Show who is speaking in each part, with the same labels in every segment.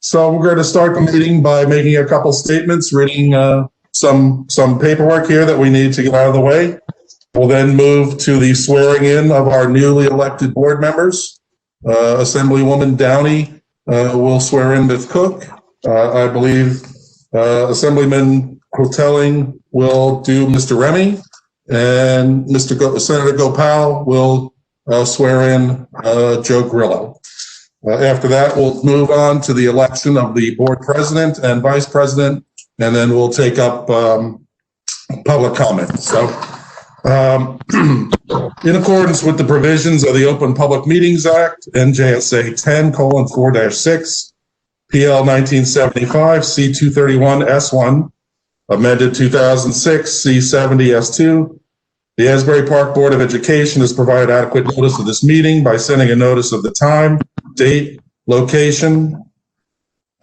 Speaker 1: So we're going to start the meeting by making a couple statements, reading uh, some, some paperwork here that we need to get out of the way. We'll then move to the swearing in of our newly elected board members. Uh, Assemblywoman Downey uh, will swear in Ms. Cook. Uh, I believe uh, Assemblyman Hoteling will do Mr. Remy. And Mr. Go- Senator Gopal will uh, swear in uh, Joe Grillo. Uh, After that, we'll move on to the election of the board president and vice president, and then we'll take up um, public comment. So um, in accordance with the provisions of the Open Public Meetings Act, NJSA 10 colon 4 dash 6, PL 1975, C 231 S 1, amended 2006, C 70 S 2, the Asbury Park Board of Education has provided adequate notice of this meeting by sending a notice of the time, date, location,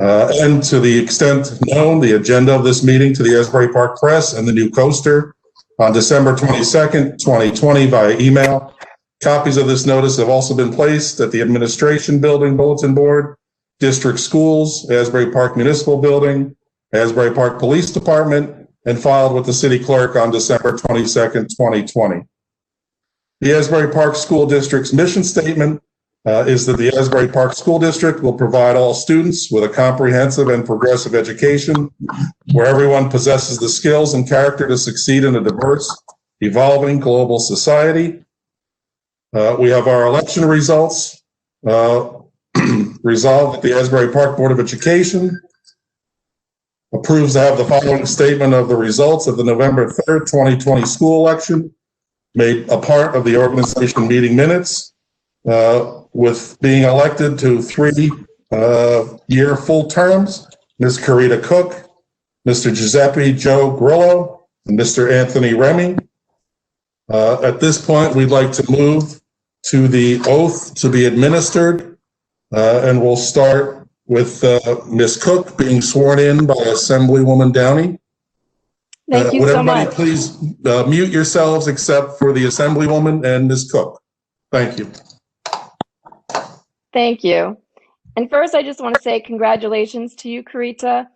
Speaker 1: uh, and to the extent known, the agenda of this meeting to the Asbury Park Press and the New Coaster on December 22nd, 2020 via email. Copies of this notice have also been placed at the Administration Building Bulletin Board, District Schools, Asbury Park Municipal Building, Asbury Park Police Department, and filed with the city clerk on December 22nd, 2020. The Asbury Park School District's mission statement uh, is that the Asbury Park School District will provide all students with a comprehensive and progressive education where everyone possesses the skills and character to succeed in a diverse, evolving global society. Uh, We have our election results. Uh, Resolved that the Asbury Park Board of Education approves to have the following statement of the results of the November 3rd, 2020 school election made a part of the organization meeting minutes uh, with being elected to three-year full terms, Ms. Karita Cook, Mr. Giuseppe Joe Grillo, and Mr. Anthony Remy. Uh, At this point, we'd like to move to the oath to be administered, uh, and we'll start with uh, Ms. Cook being sworn in by Assemblywoman Downey.
Speaker 2: Thank
Speaker 1: Uh,
Speaker 2: you
Speaker 1: would
Speaker 2: so
Speaker 1: everybody
Speaker 2: much.
Speaker 1: Please uh, mute yourselves except for the Assemblywoman and Ms. Cook. Thank you.
Speaker 2: Thank you. And first, I just want to say congratulations to you, Karita.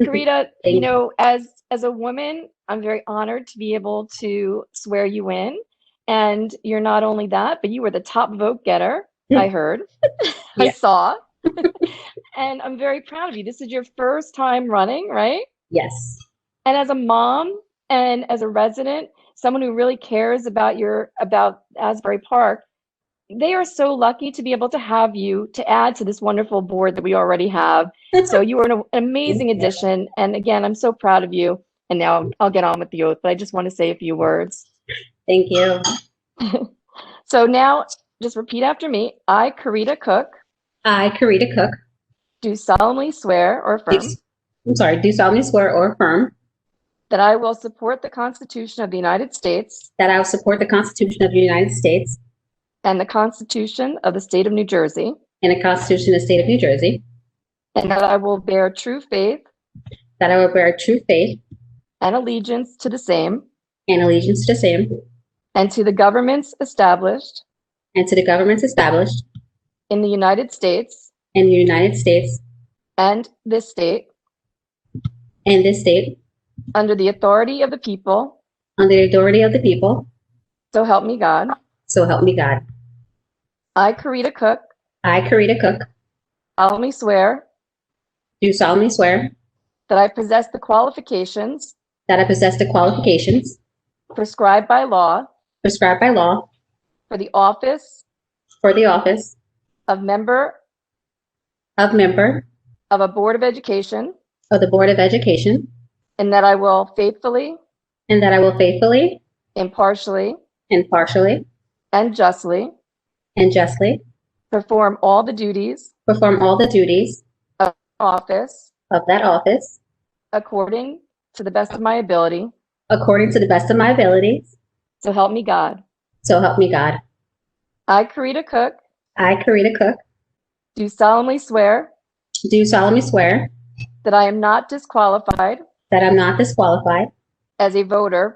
Speaker 2: Karita, you know, as as a woman, I'm very honored to be able to swear you in. And you're not only that, but you were the top vote getter. I heard. I
Speaker 3: Yeah.
Speaker 2: saw. and I'm very proud of you. This is your first time running, right?
Speaker 3: Yes.
Speaker 2: and as a mom and as a resident someone who really cares about your about asbury park they are so lucky to be able to have you to add to this wonderful board that we already have so you are an, an amazing
Speaker 3: Thank you.
Speaker 2: addition and again i'm so proud of you and now i'll get on with the oath but i just want to say a few words
Speaker 3: Thank you.
Speaker 2: so now just repeat after me i karita cook
Speaker 3: I, Karita Cook,
Speaker 2: do solemnly swear or affirm
Speaker 3: do- I'm sorry, do solemnly swear or affirm
Speaker 2: that i will support the constitution of the united states
Speaker 3: that I will support the Constitution of the United States
Speaker 2: and the constitution of the state of new jersey
Speaker 3: and the Constitution of the State of New Jersey,
Speaker 2: And that I will bear true faith
Speaker 3: that I will bear true faith
Speaker 2: and allegiance to the same
Speaker 3: and allegiance to the same
Speaker 2: and to the governments established
Speaker 3: and to the governments established
Speaker 2: in the United States
Speaker 3: in the United States
Speaker 2: and this state
Speaker 3: and this state
Speaker 2: under the authority of the people.
Speaker 3: under the authority of the people,
Speaker 2: So help me God.
Speaker 3: so help me God.
Speaker 2: I, Karita Cook,
Speaker 3: I, Karita Cook,
Speaker 2: solemnly swear
Speaker 3: do solemnly swear
Speaker 2: that I possess the qualifications
Speaker 3: that I possess the qualifications
Speaker 2: prescribed by law
Speaker 3: prescribed by law
Speaker 2: for the office
Speaker 3: for the office
Speaker 2: of member
Speaker 3: of member
Speaker 2: of a Board of Education,
Speaker 3: of the Board of Education,
Speaker 2: and that I will faithfully,
Speaker 3: and that I will faithfully
Speaker 2: impartially,
Speaker 3: impartially,
Speaker 2: and justly
Speaker 3: and justly
Speaker 2: perform all the duties
Speaker 3: perform all the duties
Speaker 2: of office
Speaker 3: of that office
Speaker 2: according to the best of my ability.
Speaker 3: according to the best of my abilities.
Speaker 2: So help me God.
Speaker 3: So help me God.
Speaker 2: I, Karita Cook,
Speaker 3: I, Karita Cook,
Speaker 2: do solemnly swear
Speaker 3: do solemnly swear
Speaker 2: that I am not disqualified
Speaker 3: that I'm not disqualified
Speaker 2: as a voter